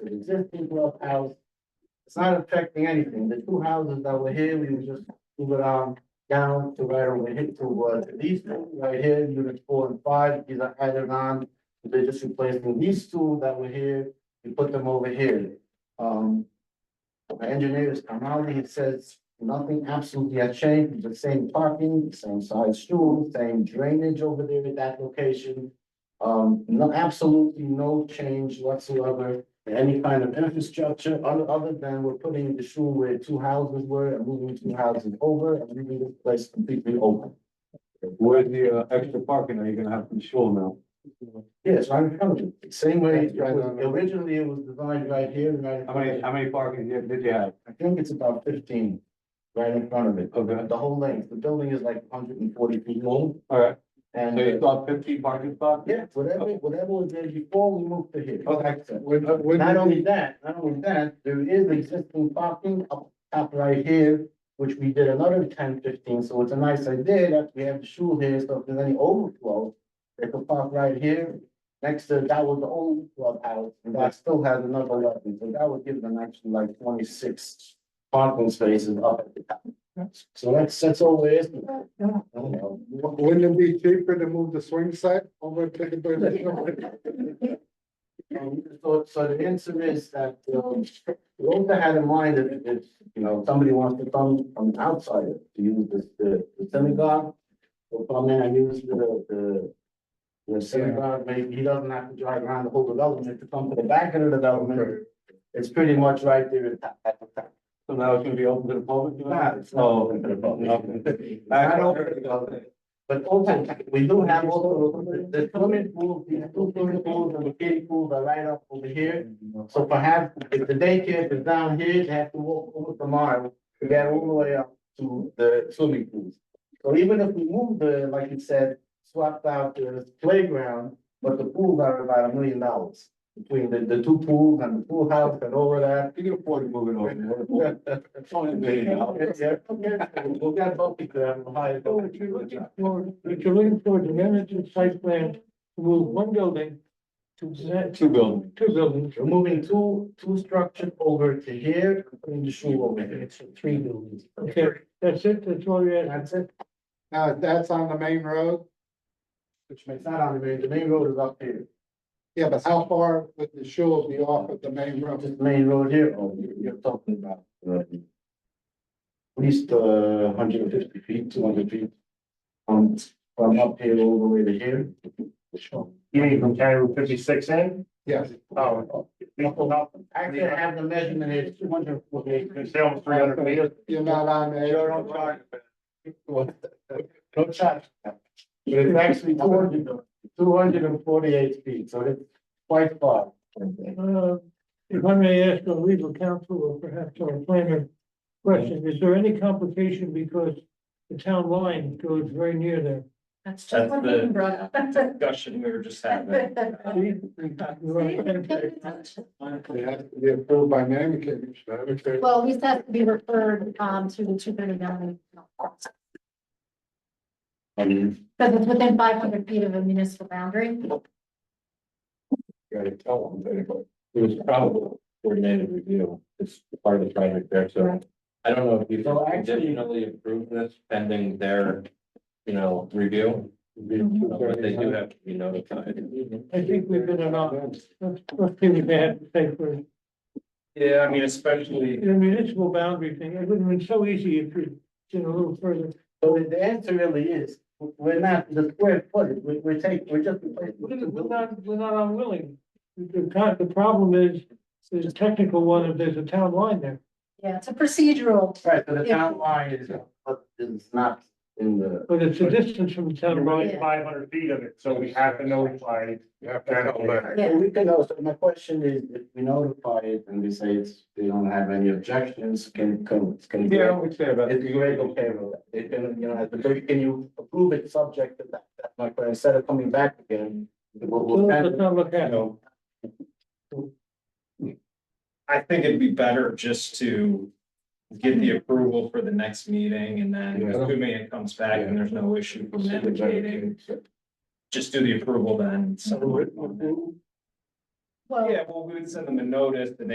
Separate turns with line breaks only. an existing clubhouse. It's not affecting anything. The two houses that were here, we would just move it on down to right over here to, uh, to these two right here, units four and five, these are added on. They're just replacing these two that were here, we put them over here. Um, the engineer is come out, he says nothing absolutely has changed, the same parking, same size stool, same drainage over there at that location. Um, no, absolutely no change whatsoever in any kind of infrastructure, other, other than we're putting the shul where two houses were and moving two houses over and leaving this place completely open.
Where's the uh, extra parking? Are you gonna have to be sure now?
Yes, I'm coming, same way, it was- originally it was designed right here, right? in
How
front of
many,
it.
how many parking did did you have?
I think it's about fifteen right in front of it,
Okay,
the whole length, the building is like hundred and forty feet long
all right. So
and.
you
uh,
thought fifteen parking spots?
Yeah, whatever, whatever was there before, we moved to here.
Okay.
Not only that, not only that, there is existing parking up, up right here, which we did another 10, 15. so it's a nice idea that we have the shul here, so if there's any overflow, they could park right here, next to, that was the old clubhouse, and that still has another level, so that would give them actually like twenty-six parking spaces up at the top. So that's, that's all there is. I don't know.
Wouldn't it be cheaper to move the swing set over to the pavilion?
Um, So, so the answer is that, um, we also had in mind that if- if, you know, somebody wants to come from outside to use this, the the synagogue. Or come in and use the, the, the synagogue, maybe he doesn't have to drive around the whole development to come to the back of the development. It's pretty much right there at the- at the top.
So now it's gonna be open to the public? you know?
Nah, it's not open to the public.
Okay.
It's not open to the public. But also, we do have also, the- the swimming pool, the two swimming pools and the kiddie pools are right up over here. So perhaps if the daycare is down here, they have to walk over the mile to get all the way up to the swimming pools. So even if we move the, like you said, swapped out the playground, but the pools are about a million dollars. Between the, the two pools and the pool house and all of that.
You can afford to move it over. It's only a million dollars.
Yeah, yeah, we'll get both of them, high.
So if you're looking for, if you're looking for the management site plan, to move one building to the next,
Two buildings.
two buildings,
We're moving two, two structures over to here, and putting the shul over here. Three buildings.
okay, that's it, that's all you're asking.
That's it,
Now, that's on the main road,
which makes not on the main, the main road is up here,
yeah, but how far would the shul be off of the main road?
just the main road here, oh, you're, you're talking about. uh, At least, uh, hundred and fifty feet, two hundred feet. From, from up here all the way to here.
You mean from County Route fifty-six in?
Yes,
Oh. It's
Actually, I have the measurement here, two hundred forty-eight.
almost three hundred meters.
you're not on the.
You're on track. No charge. But it's actually 200 248 feet, so it's quite far.
Uh, If I may ask our legal counsel or perhaps our planner question, is there any complication because the town line goes very near there?
That's just
That's
what
the-
he brought up.
discussion we were just having.
It has to be approved by name commission.
Well, we have to be referred um to the two thirty nine. Because
Um,
it's within five hundred feet of a municipal boundary.
Gotta tell them, anyway. It was probably coordinated review. It's part of the project there, so. I don't know if you
So actually-
conditionally approve this pending their, you know, review. But they do have to be notified.
I think we've been enough, let's, let's see what they have to say first.
Yeah, I mean, especially,
The municipal boundary thing, it would have been so easy if you'd been a little further.
So the- the answer really is, we're not, the square footage, we- we're taking, we're just
We're
replacing.
we're not, we're not unwilling. The, con- the problem is, there's a technical one, if there's a town line there.
Yeah, it's a procedural.
Right, so the town line is, is not in the.
But it's a distance from the
You're
town
Oh,
line.
within five hundred feet of it, so we have to notify.
You have to tell them.
So We can also, my question is, if we notify it and we say it's, they don't have any objections, can, can, can.
Yeah, I would say about.
It's great, okay, well, they can, you know, but they- can you approve it subject to that, that's my question, instead of coming back again? We'll,
So
we'll,
Let's
kind of,
not look
you
at it.
know. I think it'd be better just to get the approval for the next meeting and then assuming it comes back and there's no issue from that meeting. Just do the approval then.
so,
Well.
Yeah, well, we would send them a notice and they